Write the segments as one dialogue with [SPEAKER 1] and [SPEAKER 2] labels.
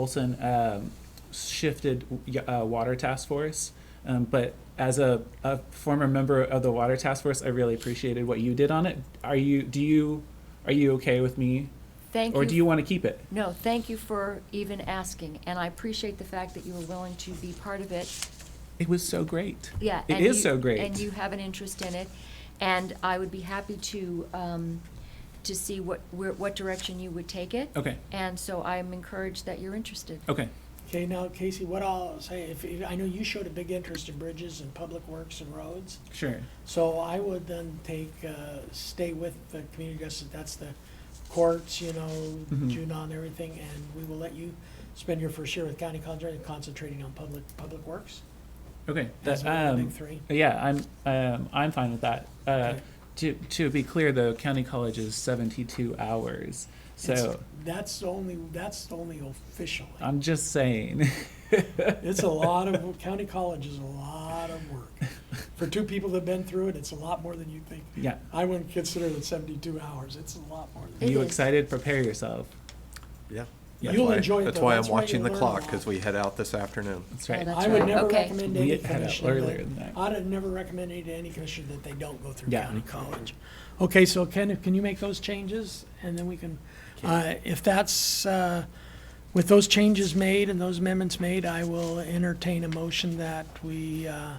[SPEAKER 1] Olson um, shifted y- uh, Water Task Force, um, but as a, a former member of the Water Task Force, I really appreciated what you did on it. Are you do you are you okay with me,
[SPEAKER 2] Thank you.
[SPEAKER 1] or do you want to keep it?
[SPEAKER 2] No, thank you for even asking, and I appreciate the fact that you were willing to be part of it.
[SPEAKER 1] It was so great.
[SPEAKER 2] Yeah.
[SPEAKER 1] it
[SPEAKER 2] and
[SPEAKER 1] is
[SPEAKER 2] you-
[SPEAKER 1] so great.
[SPEAKER 2] And you have an interest in it, and I would be happy to, um, to see what, where, what direction you would take it.
[SPEAKER 1] okay,
[SPEAKER 2] And so I'm encouraged that you're interested.
[SPEAKER 1] okay,
[SPEAKER 3] Okay, now Casey, what I'll say, if, if, I know you showed a big interest in bridges and public works and roads.
[SPEAKER 1] sure.
[SPEAKER 3] So I would then take, uh, stay with the community justice, that's the courts, you know,
[SPEAKER 1] Mhm.
[SPEAKER 3] Junon and everything, and we will let you spend your first year with county concentrating, concentrating on public, public works.
[SPEAKER 1] Okay,
[SPEAKER 3] That's
[SPEAKER 1] that,
[SPEAKER 3] one of the
[SPEAKER 1] um,
[SPEAKER 3] big three.
[SPEAKER 1] yeah, I'm um, I'm fine with that. Uh,
[SPEAKER 3] Okay.
[SPEAKER 1] To to be clear, though, county college is seventy two hours, so
[SPEAKER 3] It's- That's the only, that's the only official.
[SPEAKER 1] I'm just saying.
[SPEAKER 3] It's a lot of, county college is a lot of work. For two people that've been through it, it's a lot more than you think.
[SPEAKER 1] yeah,
[SPEAKER 3] I wouldn't consider it seventy-two hours, it's a lot more
[SPEAKER 1] are
[SPEAKER 3] than.
[SPEAKER 2] It
[SPEAKER 1] you
[SPEAKER 2] is.
[SPEAKER 1] excited? Prepare yourself.
[SPEAKER 4] Yeah.
[SPEAKER 1] Yeah.
[SPEAKER 4] That's
[SPEAKER 3] You'll
[SPEAKER 4] why-
[SPEAKER 3] enjoy it,
[SPEAKER 4] That's
[SPEAKER 3] though.
[SPEAKER 4] why
[SPEAKER 3] That's
[SPEAKER 4] I'm
[SPEAKER 3] why
[SPEAKER 4] watching
[SPEAKER 3] you'll
[SPEAKER 4] the
[SPEAKER 3] learn a
[SPEAKER 4] clock,
[SPEAKER 3] lot.
[SPEAKER 4] because we head out this afternoon.
[SPEAKER 1] That's
[SPEAKER 2] Oh,
[SPEAKER 1] right.
[SPEAKER 2] that's
[SPEAKER 3] I would
[SPEAKER 2] right.
[SPEAKER 3] never
[SPEAKER 2] Okay.
[SPEAKER 3] recommend
[SPEAKER 1] We
[SPEAKER 3] any
[SPEAKER 1] had that
[SPEAKER 3] commissioner
[SPEAKER 1] earlier than
[SPEAKER 3] that,
[SPEAKER 1] that.
[SPEAKER 3] I'd have never recommended to any commissioner that they don't go through
[SPEAKER 1] Yeah.
[SPEAKER 3] county college. Okay, so Ken, if- can you make those changes, and then we can, uh, if that's, uh, with those changes made and those amendments made, I will entertain a motion that we, uh,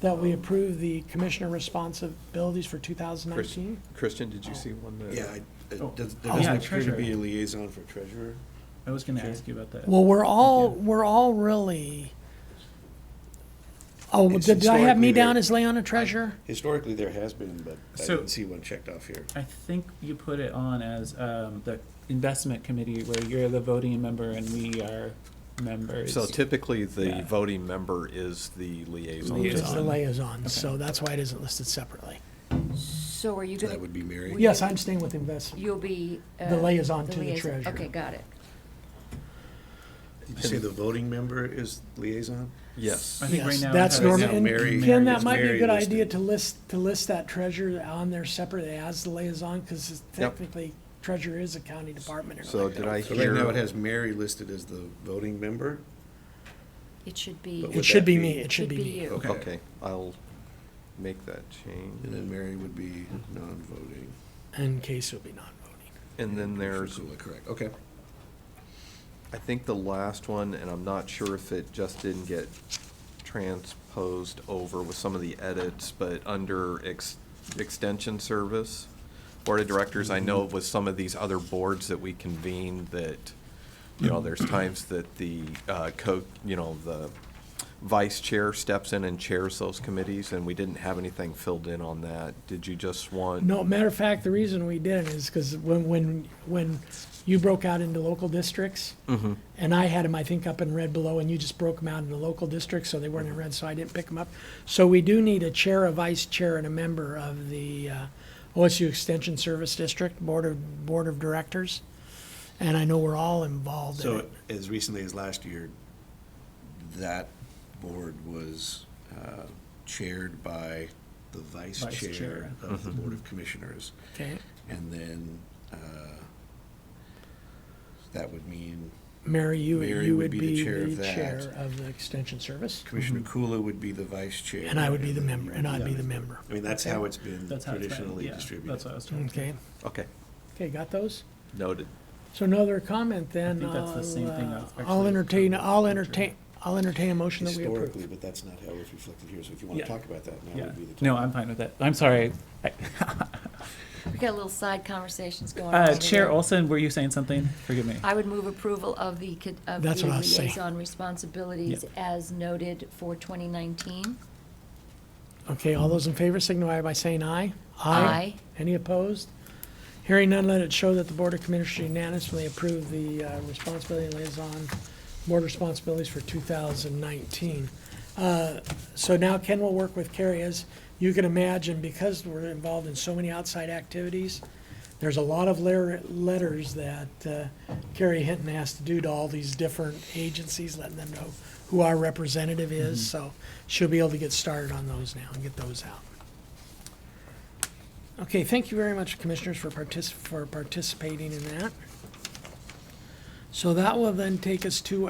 [SPEAKER 3] that we approve the commissioner responsibilities for two thousand
[SPEAKER 4] Chris-
[SPEAKER 3] nineteen.
[SPEAKER 4] Christian, did you see one that?
[SPEAKER 5] Yeah, I-
[SPEAKER 1] Oh.
[SPEAKER 5] it does-
[SPEAKER 1] Oh,
[SPEAKER 5] there doesn't
[SPEAKER 1] yeah,
[SPEAKER 5] appear to
[SPEAKER 1] treasurer.
[SPEAKER 5] be a liaison for treasurer.
[SPEAKER 1] I was going to ask you about that.
[SPEAKER 3] Well, we're all,
[SPEAKER 1] Thank
[SPEAKER 3] we're all really, oh,
[SPEAKER 5] It's
[SPEAKER 3] did I have me
[SPEAKER 5] historically there.
[SPEAKER 3] down as Leon a treasurer?
[SPEAKER 5] Historically, there has been, but I
[SPEAKER 1] So-
[SPEAKER 5] didn't see one checked off here.
[SPEAKER 1] I think you put it on as um, the investment committee where you're the voting member and we are members.
[SPEAKER 4] So typically, the
[SPEAKER 1] Yeah.
[SPEAKER 4] voting member is the liaison.
[SPEAKER 1] Liaison.
[SPEAKER 3] It's
[SPEAKER 4] just-
[SPEAKER 3] the liaison,
[SPEAKER 1] Okay.
[SPEAKER 3] so that's why it isn't listed separately.
[SPEAKER 2] So are you
[SPEAKER 5] That
[SPEAKER 2] gonna,
[SPEAKER 5] would be Mary.
[SPEAKER 2] We-
[SPEAKER 3] Yes, I'm staying with investment.
[SPEAKER 2] you'll be. uh,
[SPEAKER 3] The liaison to the
[SPEAKER 2] liaison-
[SPEAKER 3] treasurer.
[SPEAKER 2] Okay, got it.
[SPEAKER 5] Did you say the voting member is liaison?
[SPEAKER 4] Yes.
[SPEAKER 1] I think right
[SPEAKER 3] Yes,
[SPEAKER 1] now.
[SPEAKER 3] That's
[SPEAKER 1] it has-
[SPEAKER 3] normal.
[SPEAKER 5] Now Mary-
[SPEAKER 3] And Ken,
[SPEAKER 5] Mary
[SPEAKER 3] that
[SPEAKER 5] is
[SPEAKER 3] might be a
[SPEAKER 5] Mary
[SPEAKER 3] good
[SPEAKER 5] listed.
[SPEAKER 3] idea to list, to list that treasurer on there separately as the liaison, because technically treasurer is a county department. and
[SPEAKER 4] So
[SPEAKER 3] everything.
[SPEAKER 4] did I
[SPEAKER 5] So right
[SPEAKER 4] hear?
[SPEAKER 5] now, it has Mary listed as the voting member?
[SPEAKER 2] It should be.
[SPEAKER 5] But
[SPEAKER 3] It
[SPEAKER 5] would
[SPEAKER 3] should
[SPEAKER 5] that
[SPEAKER 3] be
[SPEAKER 5] be-
[SPEAKER 3] me, it should be me.
[SPEAKER 2] you.
[SPEAKER 5] Okay.
[SPEAKER 4] Okay, I'll make that change.
[SPEAKER 5] And then Mary would be non-voting.
[SPEAKER 3] And Casey will be non-voting.
[SPEAKER 4] And then there's,
[SPEAKER 5] Ursula, Correct, okay.
[SPEAKER 4] I think the last one, and I'm not sure if it just didn't get transposed over with some of the edits, but under ex- extension service, board of directors, I know with some of these other boards that we convene that, you know, there's times that the uh, co, you know, the vice chair steps in and chairs those committees, and we didn't have anything filled in on that. Did you just want?
[SPEAKER 3] No, matter of fact, the reason we didn't is because when, when, when you broke out into local districts, and I had them, I think, up in red below, and you just broke them out into local districts, so they weren't in red, so I didn't pick them up. So we do need a chair, a vice chair, and a member of the uh, OSU Extension Service District Board of, Board of Directors, and I know we're all involved in
[SPEAKER 5] So
[SPEAKER 3] it.
[SPEAKER 5] as recently as last year, that board was uh, chaired by the vice
[SPEAKER 1] Vice
[SPEAKER 5] chair
[SPEAKER 1] chair.
[SPEAKER 5] of the Board of Commissioners.
[SPEAKER 3] Okay,
[SPEAKER 5] And then uh, that would mean
[SPEAKER 3] Mary, you,
[SPEAKER 5] Mary
[SPEAKER 3] you would be
[SPEAKER 5] chair of
[SPEAKER 3] the
[SPEAKER 5] that.
[SPEAKER 3] chair of the Extension Service,
[SPEAKER 5] Commissioner Kula would be the vice chair.
[SPEAKER 3] and I would be the
[SPEAKER 5] then
[SPEAKER 3] member,
[SPEAKER 5] you
[SPEAKER 3] and
[SPEAKER 5] would
[SPEAKER 3] I'd
[SPEAKER 5] be
[SPEAKER 3] be the member.
[SPEAKER 5] I mean, that's how it's been
[SPEAKER 1] That's how it's been,
[SPEAKER 5] traditionally
[SPEAKER 1] yeah,
[SPEAKER 5] distributed.
[SPEAKER 1] That's what I was trying.
[SPEAKER 3] Okay,
[SPEAKER 4] Okay,
[SPEAKER 3] okay, got those?
[SPEAKER 4] noted.
[SPEAKER 3] So no other comment then?
[SPEAKER 1] I think that's the same thing that's
[SPEAKER 3] I'll, uh, I'll
[SPEAKER 1] actually-
[SPEAKER 3] entertain, I'll entertain, I'll entertain a motion that we
[SPEAKER 5] Historically,
[SPEAKER 3] approve.
[SPEAKER 5] but that's not how it's reflected here, so if you want
[SPEAKER 1] Yeah.
[SPEAKER 5] to talk about that, now
[SPEAKER 1] Yeah.
[SPEAKER 5] would be the time.
[SPEAKER 1] No, I'm fine with that. I'm sorry. I-
[SPEAKER 2] We got a little side conversations going on.
[SPEAKER 1] Uh,
[SPEAKER 2] over
[SPEAKER 1] Chair
[SPEAKER 2] there.
[SPEAKER 1] Olson, were you saying something? Forgive me.
[SPEAKER 2] I would move approval of the, co- of the
[SPEAKER 3] That's what I was saying.
[SPEAKER 2] liaison responsibilities as noted for 2019.
[SPEAKER 3] Okay, all those in favor signify by saying aye.
[SPEAKER 2] Aye.
[SPEAKER 3] Any opposed? Hearing none, let it show that the Board of Commissioners unanimously approved the uh, responsibility liaison, board responsibilities for 2019. Uh, So now Ken will work with Carrie, as you can imagine, because we're involved in so many outside activities, there's a lot of letter- letters that uh, Carrie Hinton has to do to all these different agencies, letting them know who our representative is, so she'll be able to get started on those now and get those out. Okay, thank you very much, Commissioners, for partic, for participating in that. So that will then take us to